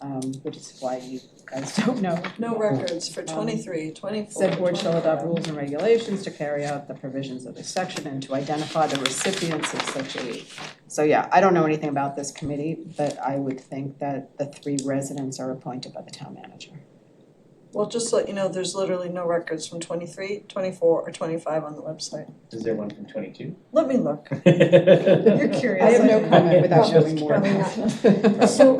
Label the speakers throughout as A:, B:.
A: um, which is why you guys don't know.
B: No records for twenty-three, twenty-four.
A: Said board Um, shall adopt rules and regulations to carry out the provisions of this section and to identify the recipients of such aid. So yeah, I don't know anything about this committee, but I would think that the three residents are appointed by the town manager.
B: Well, just to let you know, there's literally no records from twenty-three, twenty-four, or twenty-five on the website.
C: Is there one from twenty-two?
B: Let me look.
C: You're
A: I have no comment without knowing more.
D: Probably not. So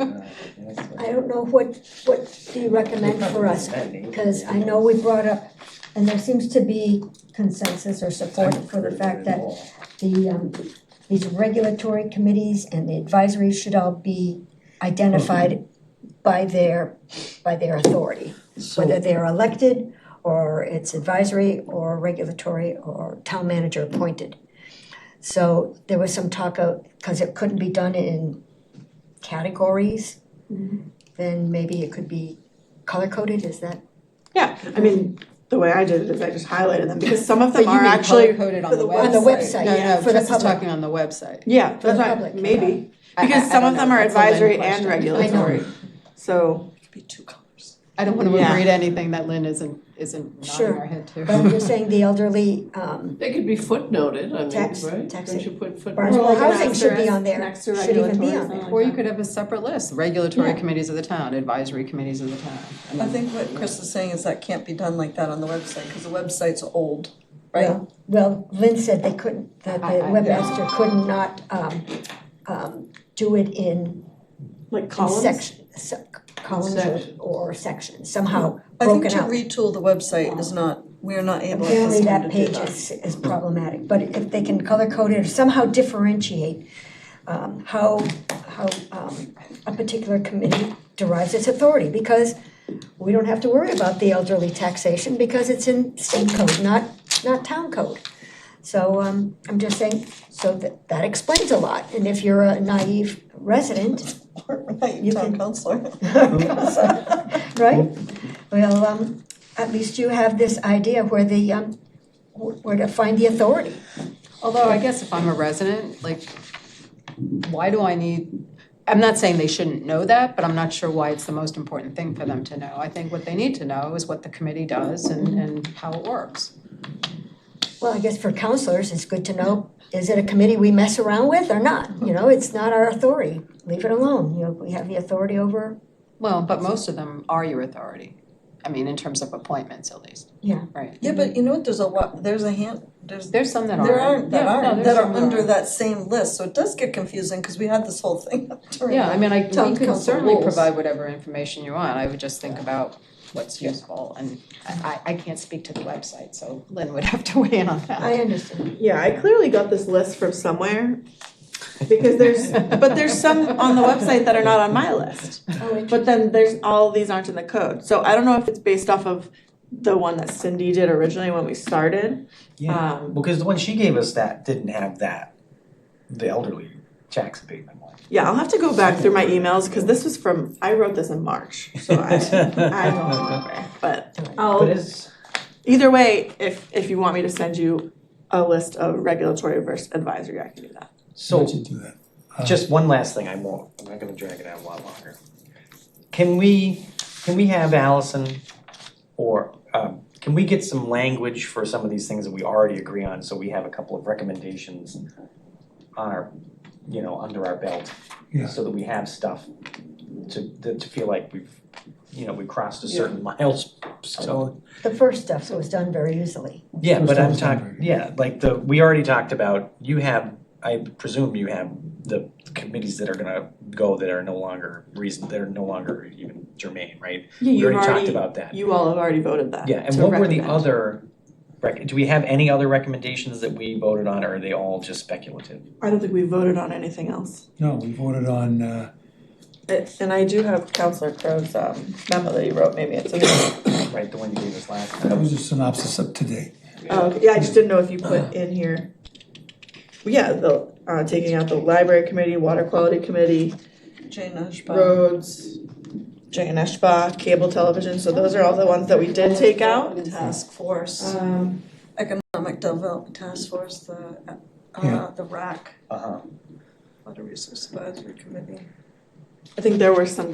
C: Uh,
D: I don't know what, what do you recommend for us? Because I know we brought up, and there seems to be consensus or support for the fact that the, um, these regulatory committees and the advisories should all be identified by their, by their authority, whether they're elected, or it's advisory, or regulatory, or town manager appointed. So there was some talk of, because it couldn't be done in categories, then maybe it could be color-coded, is that?
E: Yeah, I mean, the way I did it is I just highlighted them because some of them
A: But you
E: are
A: mean
E: actually,
A: color-coded on
B: for
A: the
B: the
A: website.
B: web- on the
A: No,
B: website,
A: no,
E: yeah, for the
A: Chris is
E: public.
A: talking on the website.
E: yeah,
D: For the
E: that's right,
D: public,
E: maybe.
A: I- I- I
E: Because some
A: don't
E: of them
A: know.
E: are
A: That's a Lynn
E: advisory and
A: question.
E: regulatory, so.
B: Could be two colors.
A: I don't wanna
E: Yeah.
A: agree to anything that Lynn isn't, isn't nodding
D: Sure.
A: her head to.
D: But I'm just saying the elderly, um,
F: They could be footnoted, I
D: Tax-
F: mean, right?
D: tax
F: Don't
D: it.
F: you put
D: Barnes
F: footnotes?
D: Well,
E: Well,
D: housing
E: next
D: should
E: to
D: be
E: reg-
D: on there,
E: next to
D: should even be
E: regulatory,
D: on there.
E: something
A: Or
E: like
A: you
E: that.
A: could have a separate list, regulatory
D: Yeah.
A: committees of the town, advisory committees of the town.
B: I think what Chris is saying is that can't be done like that on the website, because the website's old, right?
D: Well, well, Lynn said they couldn't, that the
A: I- I-
D: webmaster could not, um, um, do it in
E: Like
D: in
E: columns?
D: section, se- columns
F: Section.
D: or, or sections, somehow
B: I think
D: broken
B: to
D: out.
B: retool the website is not, we are not able at
D: Apparently
B: this time to
D: that
B: do
D: page
B: that.
D: is, is problematic, but if they can color code it or somehow differentiate, um, how, how, um, a particular committee derives its authority, because we don't have to worry about the elderly taxation, because it's in state code, not, not town code. So, um, I'm just saying, so that, that explains a lot, and if you're a naive resident,
B: Right,
D: You
B: town
D: can-
B: councilor.
D: right? Well, um, at least you have this idea where the, um, wh- where to find the authority.
A: Although I guess if I'm a resident, like, why do I need, I'm not saying they shouldn't know that, but I'm not sure why it's the most important thing for them to know. I think what they need to know is what the committee does
B: Mm-hmm.
A: and, and how it works.
D: Well, I guess for counselors, it's good to know, is it a committee we mess around with or not? You know, it's not our authority, leave it alone, you know, we have the authority over,
A: Well, but most of them are your authority, I mean, in terms of appointments at least.
D: Yeah.
A: Right.
B: Yeah, but you know what, there's a lot, there's a hand, there's
A: There's some that aren't.
B: There aren't, that
A: Yeah, no,
B: aren't,
A: there's
B: that
A: some
B: are under that same list, so it does get confusing, because we had this whole thing during
A: Yeah, I mean, I,
B: Town
A: we could
B: council
A: certainly
B: rules.
A: provide whatever information you want, I would just think about what's useful, and I, I I can't speak to the website, so Lynn would have to weigh in on that.
D: I understand.
E: Yeah, I clearly got this list from somewhere. Because there's, but there's some on the website that are not on my list.
D: Oh, it-
E: But then there's, all of these aren't in the code. So I don't know if it's based off of the one that Cindy did originally when we started.
C: Yeah,
E: Um,
C: because the one she gave us that didn't have that, the elderly tax abatement one.
E: Yeah, I'll have to go back through my emails because this was from, I wrote this in March, so I, I don't remember. But
C: But
E: I'll,
C: it's,
E: either way, if, if you want me to send you a list of regulatory versus advisory, I can do that.
C: so
G: Don't you do that. Uh,
C: just one last thing, I won't, I'm not gonna drag it out a lot longer. Can we, can we have Allison or, um, can we get some language for some of these things that we already agree on, so we have a couple of recommendations on our, you know, under our belt?
G: Yeah.
C: So that we have stuff to, that- to feel like we've, you know, we crossed a certain milestone.
D: The first stuff was done very easily.
C: Yeah, but I'm
G: First time
C: talking,
G: standard.
C: yeah, like the, we already talked about, you have, I presume you have the committees that are gonna go that are no longer reason, that are no longer even germane, right?
E: Yeah,
C: We
E: you've
C: already talked
E: already,
C: about that.
E: you all have already voted that.
C: Yeah, and
E: to
C: what were the
E: recommend.
C: other, rec- do we have any other recommendations that we voted on, or are they all just speculative?
E: I don't think we voted on anything else.
G: No, we voted on, uh,
E: It, and I do have Counselor Crow's um, memo that you wrote. Maybe it's in there.
C: Right, the one you gave us last
G: that
C: time?
G: was a synopsis up to date.
E: Oh, okay. yeah, I just didn't know if you put in here. Yeah, the uh, taking out the library committee, water quality committee,
B: Jane Ashbaum.
E: roads, J and S Spa, cable television. So those are all the ones that we did take out.
B: Task Force,
E: Um,
B: Economic Development Task Force, the, uh,
G: Yeah.
B: the RAC,
C: Uh-huh.
B: Water Resource Advisory Committee.
E: I think there were some